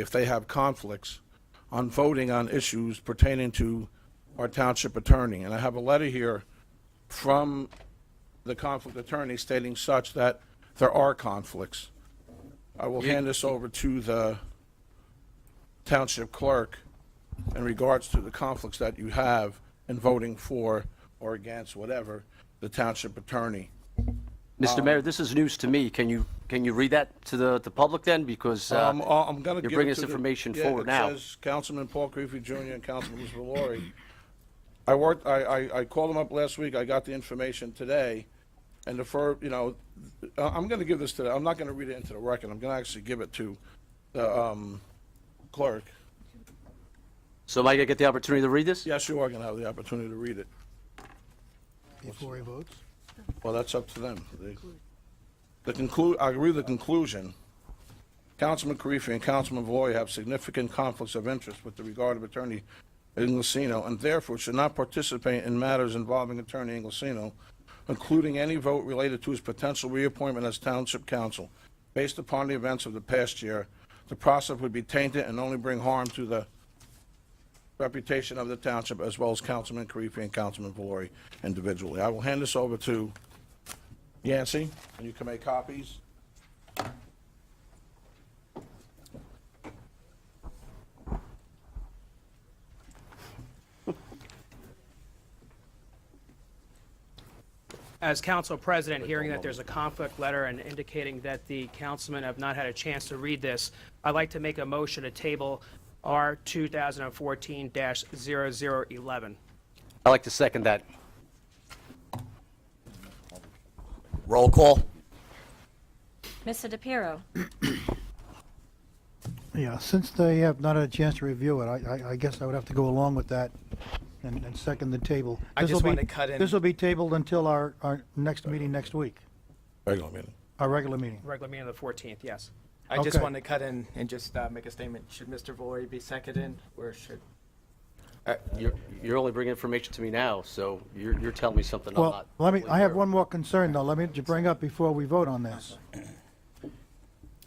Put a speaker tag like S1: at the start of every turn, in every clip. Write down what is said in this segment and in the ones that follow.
S1: if they have conflicts on voting on issues pertaining to our township attorney. And I have a letter here from the conflict attorney stating such that there are conflicts. I will hand this over to the township clerk in regards to the conflicts that you have in voting for or against whatever the township attorney. Um,
S2: Mr. Mayor, this is news to me. Can you, can you read that to the, the public then? Because, uh,
S1: Um, I- I'm gonna
S2: you're
S1: give it
S2: bringing
S1: to
S2: this
S1: the-
S2: information
S1: yeah,
S2: forward now.
S1: It says Councilman Paul Creepy Jr. and Councilman Elizabeth Laurie. I worked, I, I, I called them up last week, I got the information today, and the fir, you know, I- I'm gonna give this to, the- I'm not gonna read it into the record, I'm gonna actually give it to the, um, clerk.
S2: So am I gonna get the opportunity to read this?
S1: Yes, you are gonna have the opportunity to read it.
S3: before he votes?
S1: Well, that's up to them. They- The conclu, I agree with the conclusion. Councilman Karifi and Councilman Valori have significant conflicts of interest with the regard of Attorney Inglesino and therefore should not participate in matters involving Attorney Inglesino, including any vote related to his potential reappointment as Township Council. Based upon the events of the past year, the process would be tainted and only bring harm to the reputation of the township, as well as Councilman Karifi and Councilman Valori individually. I will hand this over to Yancy, and you can make copies.
S4: As council president, hearing that there's a conflict letter and indicating that the councilmen have not had a chance to read this, I'd like to make a motion to table R 2014-0011.
S2: I'd like to second that.
S5: Roll call?
S6: Mr. DePiero,
S3: Yeah, since they have not had a chance to review it, I, I, I guess I would have to go along with that and, and second the table.
S7: I
S3: This'll
S7: just
S3: be-
S7: wanted to cut in-
S3: This will be tabled until our, our next meeting next week,
S1: Regular meeting.
S3: our regular meeting.
S4: Regular meeting of the 14th, yes.
S7: I just
S3: Okay.
S7: wanted to cut in and just uh, make a statement. Should Mr. Valori be seconded or should?
S2: You're, you're only bringing information to me now, so you're, you're telling me something I'm
S3: Well,
S2: not.
S3: let me,
S2: aware
S3: I have
S2: of.
S3: one more concern though, let me ju- bring up before we vote on this.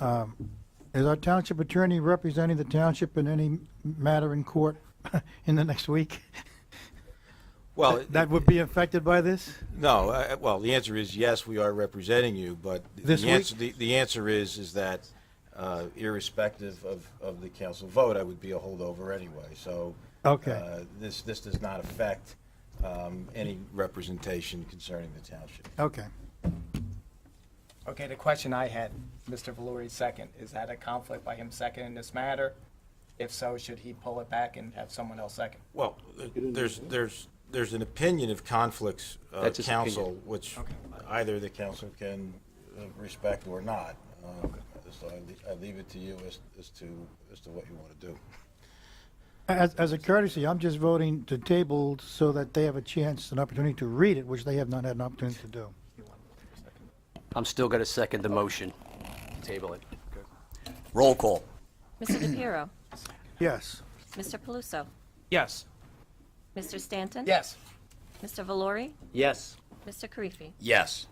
S3: Um, Is our township attorney representing the township in any matter in court in the next week?
S5: Well,
S3: That would be affected by this?
S5: no, uh, well, the answer is yes, we are representing you, but
S3: This
S5: the
S3: week?
S5: answer, the the answer is, is that uh, irrespective of, of the council vote, I would be a holdover anyway, so.
S3: Okay.
S5: uh, This, this does not affect um, any representation concerning the township.
S3: Okay.
S7: Okay, the question I had, Mr. Valori second, is that a conflict by him seconding this matter? If so, should he pull it back and have someone else second?
S5: Well, there's, there's, there's an opinion of conflicts of
S2: That's his
S5: council,
S2: opinion.
S5: which either the council can uh, respect or not. Um, So I le- I leave it to you as, as to, as to what you want to do.
S3: As, as a courtesy, I'm just voting to table so that they have a chance, an opportunity to read it, which they have not had an opportunity to do.
S2: I'm still gonna second the motion. Table it.
S5: Roll call.
S6: Mr. DePiero,
S3: Yes.
S6: Mr. Paluso,
S4: Yes.
S6: Mr. Stanton?
S7: Yes.
S6: Mr. Valori,
S2: Yes.
S6: Mr. Karifi?
S5: Yes.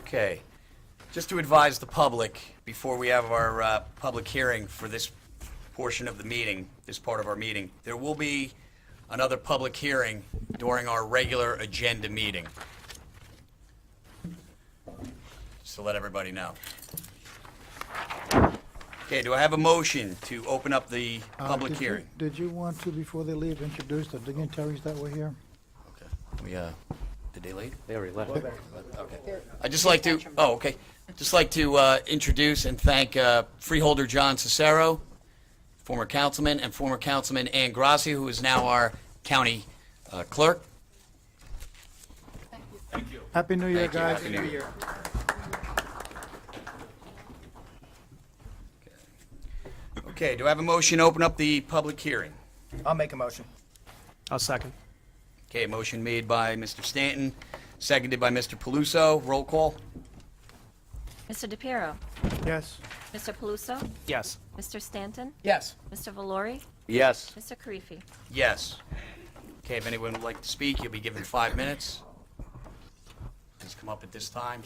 S8: Okay. Just to advise the public, before we have our uh, public hearing for this portion of the meeting, this part of our meeting, there will be another public hearing during our regular agenda meeting. Just to let everybody know. Okay, do I have a motion to open up the
S3: Uh,
S8: public
S3: did you-
S8: hearing?
S3: Did you want to, before they leave, introduce the dignitaries that were here?
S8: Okay. We, uh, did they leave?
S2: They already left.
S8: I'd just like to, oh, okay. Just like to uh, introduce and thank uh, Freeholder John Cicero, former councilman, and former councilman Ann Grassi, who is now our county uh, clerk.
S3: Happy New Year,
S8: Thank you.
S3: guys.
S8: Happy New Year. Okay, do I have a motion to open up the public hearing?
S7: I'll make a motion.
S4: I'll second.
S8: Okay, motion made by Mr. Stanton, seconded by Mr. Paluso. Roll call?
S6: Mr. DePiero,
S3: Yes.
S6: Mr. Paluso,
S4: Yes.
S6: Mr. Stanton?
S7: Yes.
S6: Mr. Valori,
S2: Yes.
S6: Mr. Karifi?
S8: Yes. Okay, if anyone would like to speak, you'll be given five minutes. Just come up at this time,